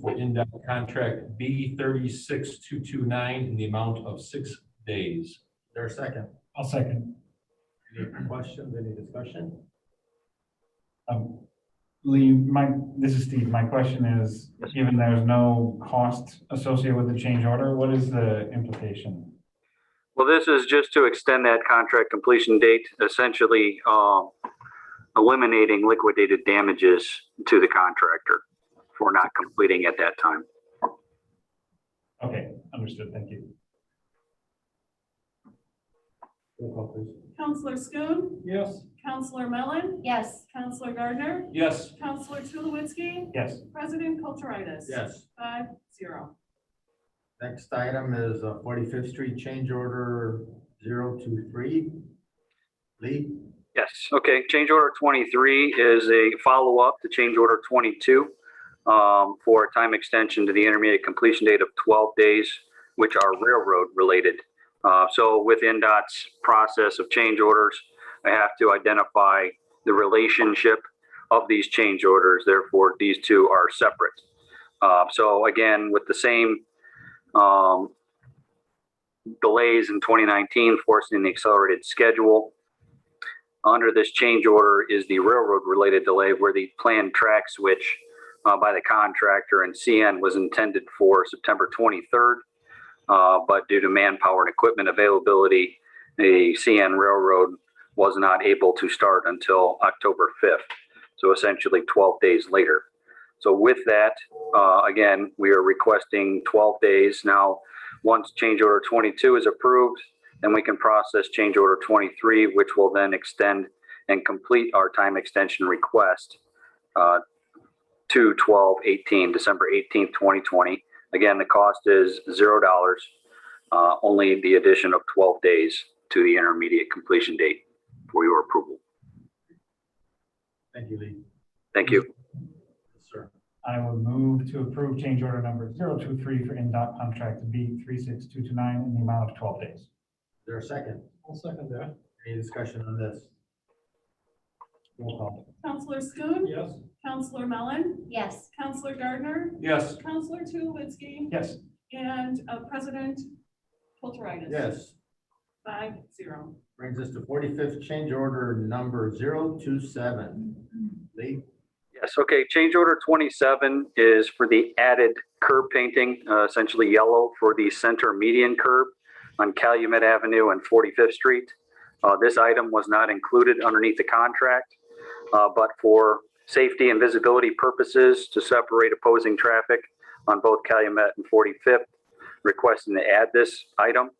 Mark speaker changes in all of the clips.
Speaker 1: for in-depth contract B thirty-six two two nine in the amount of six days. Is There a second?
Speaker 2: I'll second.
Speaker 1: Any questions, any discussion?
Speaker 2: Um, Lee, my, this is Steve. My question is, given there's no cost associated with the change order, what is the implication?
Speaker 3: Well, this is just to extend that contract completion date, essentially um, eliminating liquidated damages to the contractor for not completing at that time.
Speaker 2: Okay, understood. Thank you.
Speaker 1: Roll call, please.
Speaker 4: Counselor Schoen,
Speaker 1: Yes.
Speaker 4: Counselor Mellon,
Speaker 5: yes,
Speaker 4: Counselor Gardner,
Speaker 1: Yes.
Speaker 4: Counselor Tulowitzki,
Speaker 2: Yes,
Speaker 4: President Kulturitis.
Speaker 1: Yes.
Speaker 4: Five, zero.
Speaker 6: Next item is uh, 45th Street Change Order 023. Lee,
Speaker 3: Yes, okay. Change order 23 is a follow-up to change order 22 um, for a time extension to the intermediate completion date of 12 days, which are railroad-related. Uh, So with NDOT's process of change orders, I have to identify the relationship of these change orders. Therefore, these two are separate. Uh, So again, with the same um, delays in 2019 forcing the accelerated schedule, under this change order is the railroad related delay where the planned track switch uh, by the contractor and CN was intended for September 23rd. uh, But due to manpower and equipment availability, the CN Railroad was not able to start until October 5th. So essentially 12 days later. So with that, uh, again, we are requesting 12 days. Now, once change order 22 is approved, then we can process change order 23, which will then extend and complete our time extension request uh, to 12/18, December 18th, 2020. Again, the cost is $0, uh, only the addition of 12 days to the intermediate completion date for your approval.
Speaker 6: thank you, Lee.
Speaker 3: Thank you.
Speaker 6: Yes, Sir,
Speaker 2: I will move to approve change order number zero two three for NDOT contract B three six two two nine in the amount of twelve days.
Speaker 6: is there a second?
Speaker 1: I'll second that.
Speaker 6: Any discussion on this? Roll call.
Speaker 4: Counselor Schoen,
Speaker 1: Yes.
Speaker 4: Counselor Mellon,
Speaker 5: yes,
Speaker 4: Counselor Gardner,
Speaker 1: Yes.
Speaker 4: Counselor Tulowitzki,
Speaker 2: Yes,
Speaker 4: and uh, President Kulturitis.
Speaker 6: Yes,
Speaker 4: Five, zero.
Speaker 6: brings us to 45th Change Order Number 027. Lee,
Speaker 3: Yes, okay, change order 27 is for the added curb painting, uh, essentially yellow for the center median curb on Calumet Avenue and 45th Street. Uh, This item was not included underneath the contract, uh, but for safety and visibility purposes to separate opposing traffic on both Calumet and 45th, requesting to add this item.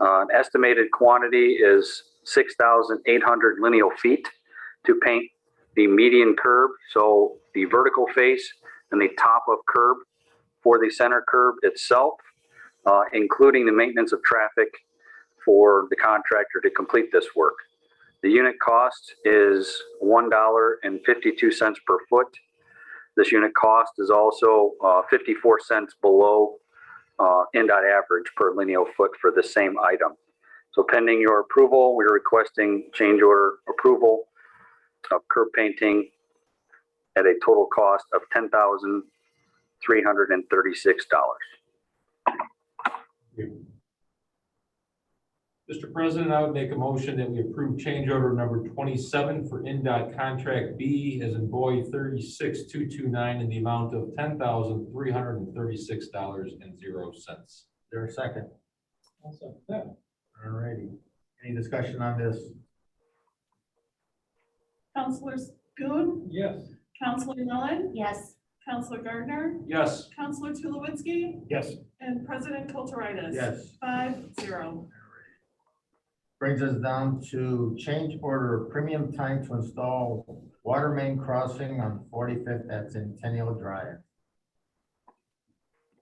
Speaker 3: Uh, Estimated quantity is 6,800 lineal feet to paint the median curb, so the vertical face and the top of curb for the center curb itself, uh, including the maintenance of traffic for the contractor to complete this work. The unit cost is one dollar and fifty-two cents per foot. This unit cost is also, uh, fifty-four cents below, uh, NDOT average per lineal foot for the same item. So pending your approval, we're requesting change order approval of curb painting at a total cost of ten thousand three hundred and thirty-six dollars.
Speaker 1: Mr. President, I would make a motion that we approve change order number twenty-seven for NDOT contract B as in boy thirty-six two two nine in the amount of ten thousand three hundred and thirty-six dollars and zero cents.
Speaker 6: is there a second?
Speaker 1: Yes.
Speaker 6: All righty. Any discussion on this?
Speaker 4: Counselor Schoen, Counselor Mellon,
Speaker 5: yes,
Speaker 4: Counselor Gardner,
Speaker 1: Yes.
Speaker 4: Counselor Tulowitzki,
Speaker 2: yes.
Speaker 4: and President Kulturitis.
Speaker 6: Yes.
Speaker 4: Five, zero.
Speaker 6: Brings us down to change order premium time to install water main crossing on 45th at Centennial Drive.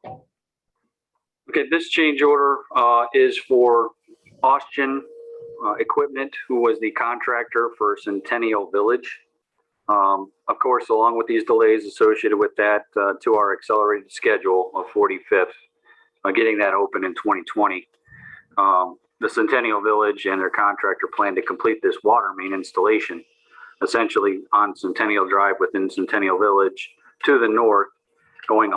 Speaker 3: Okay, this change order uh, is for Austin uh, Equipment, who was the contractor for Centennial Village. Um, Of course, along with these delays associated with that, uh, to our accelerated schedule of 45th, uh, getting that open in 2020. Um, The Centennial Village and their contractor plan to complete this water main installation essentially on Centennial Drive within Centennial Village to the north, going